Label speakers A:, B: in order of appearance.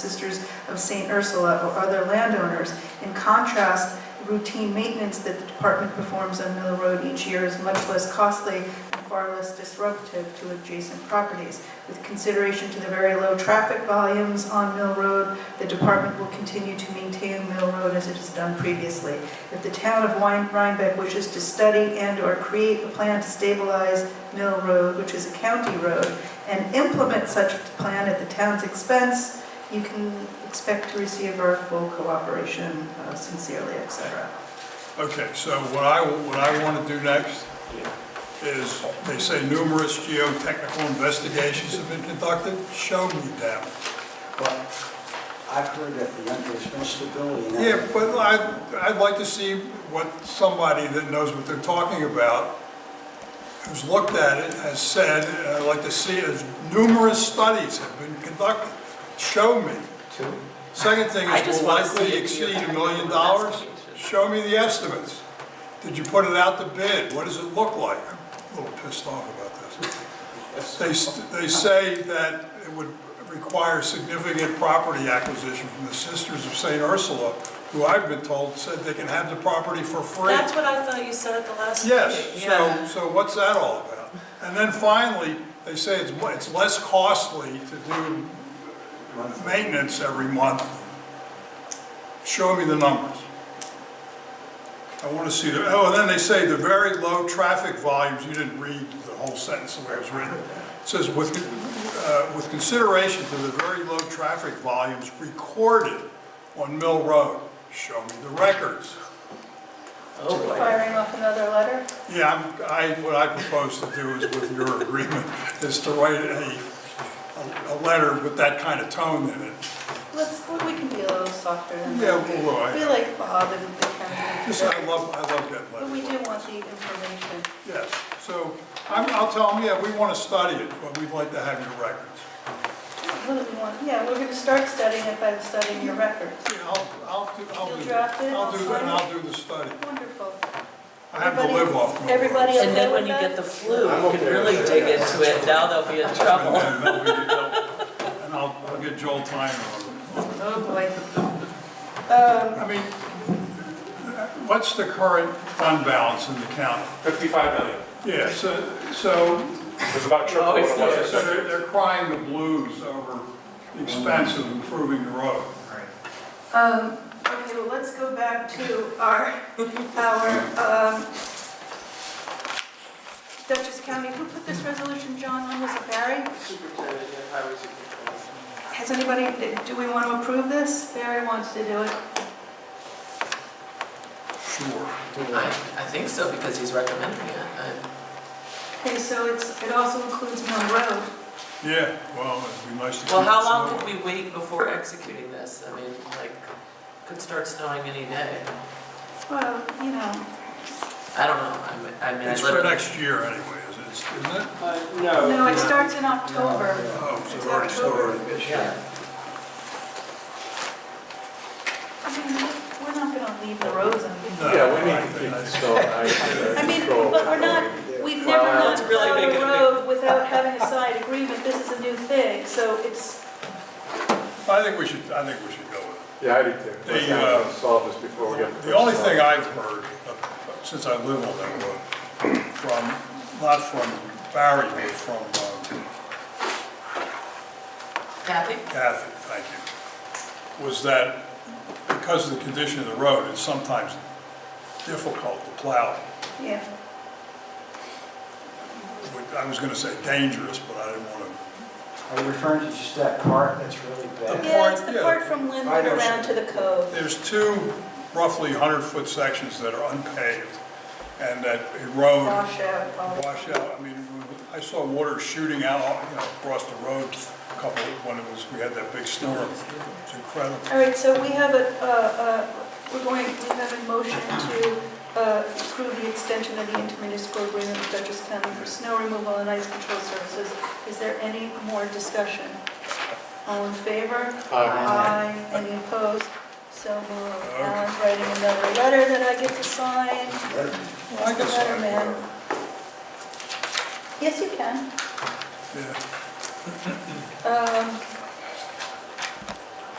A: Sisters of St. Ursula or other landowners. In contrast, routine maintenance that the department performs on Mill Road each year is much less costly and far less disruptive to adjacent properties. With consideration to the very low traffic volumes on Mill Road, the department will continue to maintain Mill Road as it has done previously. If the town of Wein- Rhinebeck wishes to study and/or create a plan to stabilize Mill Road, which is a county road, and implement such a plan at the town's expense, you can expect to receive our full cooperation uh, sincerely, etc.
B: Okay, so what I, what I want to do next is, they say numerous geotechnical investigations have been conducted, show me them.
C: But I've heard that the, there's no stability in that.
B: Yeah, but I, I'd like to see what somebody that knows what they're talking about, who's looked at it, has said, and I'd like to see is numerous studies have been conducted. Show me. Second thing
D: I
B: is,
D: just
B: will
D: wanna see
B: likely
D: if you
B: exceed a
D: have
B: million
D: any
B: dollars?
D: investigations.
B: Show me the estimates. Did you put it out to bid? What does it look like? I'm a little pissed off about this. They, they say that it would require significant property acquisition from the Sisters of St. Ursula, who I've been told said they can have the property for free.
D: That's what I thought you said at the last meeting.
B: Yes,
D: Yeah.
B: so, so what's that all about? And then finally, they say it's, mo- it's less costly to do maintenance every month. Show me the numbers. I want to see the, oh, and then they say the very low traffic volumes, you didn't read the whole sentence the way it was written. It says with, uh, with consideration to the very low traffic volumes recorded on Mill Road, show me the records.
D: Oh, boy.
A: Firing off another letter?
B: Yeah, I'm- I, what I propose to do is with your agreement, is to write a, a letter with that kind of tone in it.
A: Let's, well, we can be a little softer than
B: Yeah,
A: that.
B: well, I-
A: We like Bob and the county.
B: Just, I love, I love that
A: But we
B: letter.
A: do want the information.
B: Yes, so I'm, I'll tell them, yeah, we want to study it, but we'd like to have your records.
A: What do we want? Yeah, we're gonna start studying it by studying your records.
B: Yeah, I'll, I'll do, I'll do.
A: You'll draft it,
B: I'll do,
A: I'll
B: and
A: sign it?
B: I'll do the study.
A: Wonderful.
B: I have to
A: Everybody-
B: live off. my
A: everybody
B: words.
D: And then when you get the flu,
E: I'm
D: you can
E: okay
D: really
E: with
D: dig into it, now they'll be in trouble.
B: And then we can go- and I'll, I'll get Joel Tyner on it.
A: Oh, boy. Um,
B: I mean, what's the current fund balance in the county?
E: 55 million.
B: Yeah, so, so
E: It's about triple what
D: Always
E: it
B: Yeah,
E: was.
B: so they're, they're crying the blues over the expense of improving the road.
A: um, okay, well, let's go back to our, our, um, Dutchess County, who put this resolution, John, on, was it Barry?
F: Superintendent and highway superintendent.
A: Has anybody, do we want to approve this? Barry wants to do it.
B: Sure.
D: I, I think so, because he's recommending it. I-
A: Okay, so it's, it also includes Mill Road.
B: Yeah, well, it'd be nice to.
D: Well,
B: keep
D: how
B: it
D: long
B: snowing.
D: could we wait before executing this? I mean, like, could start snowing any day.
A: Well, you know,
D: I don't know, I mean, I mean, I
B: It's for
D: literally.
B: next year anyway, is it, isn't it?
F: Uh,
C: Oh,
A: no, it starts in October.
B: Oh, so
A: It's
B: it already
A: October.
B: started.
D: Yeah,
A: I mean, we- we're not going to leave the roads
B: No.
A: on.
E: Yeah, we need to keep snow and ice under
A: I mean,
E: uh, control.
A: but we're not, we've never
D: Well,
A: not
D: it's really
A: plowed a
D: making a big-
A: road without having a side agreement. This is a new thing, so it's,
B: I think we should, I think we should go with
E: Yeah, I do too. Let's
B: The,
E: not
B: uh,
E: solve this before we get.
B: it. The only thing I've heard, uh, since I live on that road, from, not from Barry, but from uh,
D: Kathy?
B: Kathy, thank you, was that because of the condition of the road, it's sometimes difficult to plow.
A: yeah.
B: I was gonna say dangerous, but I didn't wanna
C: Are you referring to just that part that's really bad?
A: Yeah, it's the
B: yeah.
A: part from Linwood around to the cove.
B: There's two roughly 100-foot sections that are unpaved, and that erode,
A: Wash out, all-
B: wash out. I mean, I saw water shooting out, you know, across the road a couple, when it was, we had that big storm. It's incredible.
A: All right, so we have a, uh, uh, we're going, we have a motion to uh, approve the extension of the intermunicipal agreement with Dutchess County for snow removal and ice control services. Is there any more discussion? All in favor? Aye. Any opposed? So moved. Alan's writing another letter that I get to sign.
B: I
A: Where's the
B: can
A: letter,
B: sign
A: man? Yes, you can.
B: Yeah.
A: Um,